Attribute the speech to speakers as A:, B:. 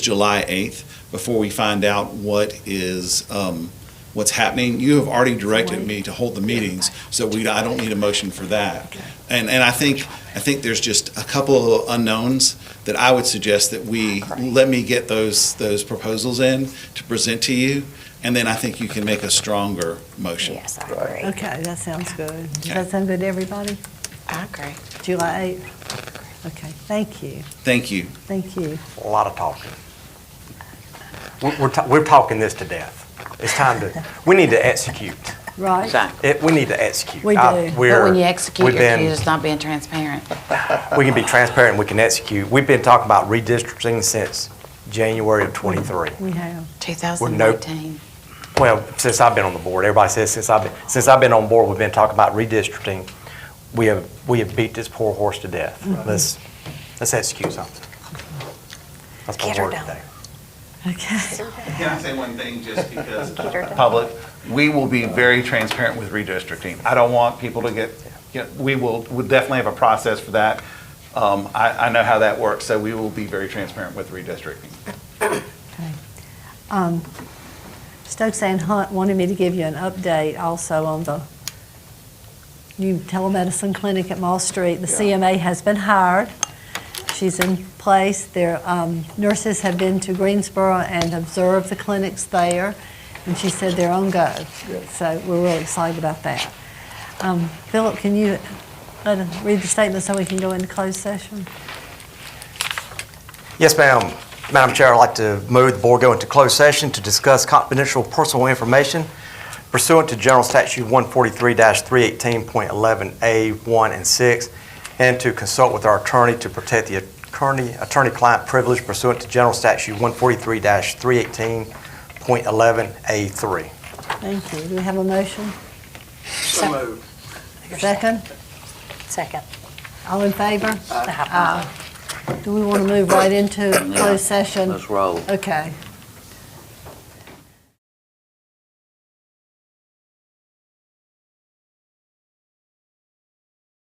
A: July 8th before we find out what is, um, what's happening. You have already directed me to hold the meetings, so we, I don't need a motion for that. And, and I think, I think there's just a couple of unknowns that I would suggest that we, let me get those, those proposals in to present to you, and then I think you can make a stronger motion.
B: Yes, I agree.
C: Okay, that sounds good.
A: Okay.
C: Does that sound good to everybody?
B: I agree.
C: July 8th? Okay, thank you,
A: Thank you.
C: thank you.
D: A lot of talking. We're, we're, ta- we're talking this to death. It's time to, we need to execute.
C: Right?
D: It, we need to execute.
C: We
D: I-
C: do. But
D: We're,
E: But when you execute,
D: we've
E: you're
D: been-
E: accused of not being transparent.
D: we can be transparent and we can execute. We've been talking about redistricting since January of 23.
C: We have.
E: 2019.
D: Well, since I've been on the board, everybody says since I've been, since I've been on board, we've been talking about redistricting. We have, we have beat this poor horse to death. Let's, let's execute something. That's my
B: Get her
D: word
B: done.
D: today.
C: Okay,
A: Can I say one thing, just because?
B: her down.
A: Public, we will be very transparent with redistricting. I don't want people to get, you know, we will, we definitely have a process for that. Um, I, I know how that works, so we will be very transparent with redistricting.
C: Um, Stokes and Hunt wanted me to give you an update also on the new telemedicine clinic at Mall Street. The CMA has been hired. She's in place. Their um, nurses have been to Greensboro and observed the clinics there, and she said they're on go. So we're really excited about that. Um, Philip, can you let us read the statement so we can go into closed session?
D: Yes, ma'am. Madam Chair, I'd like to move the board go into closed session to discuss confidential personal information pursuant to General Statute 143-318.11A1 and 6, and to consult with our attorney to protect the attorney- attorney-client privilege pursuant to General Statute 143-318.11A3.
C: Thank you. Do we have a motion? Second?
B: Second.
C: All in favor?
F: Uh,
C: Uh, Aye. Do we want to move right into closed session?
F: Let's roll.
C: Okay.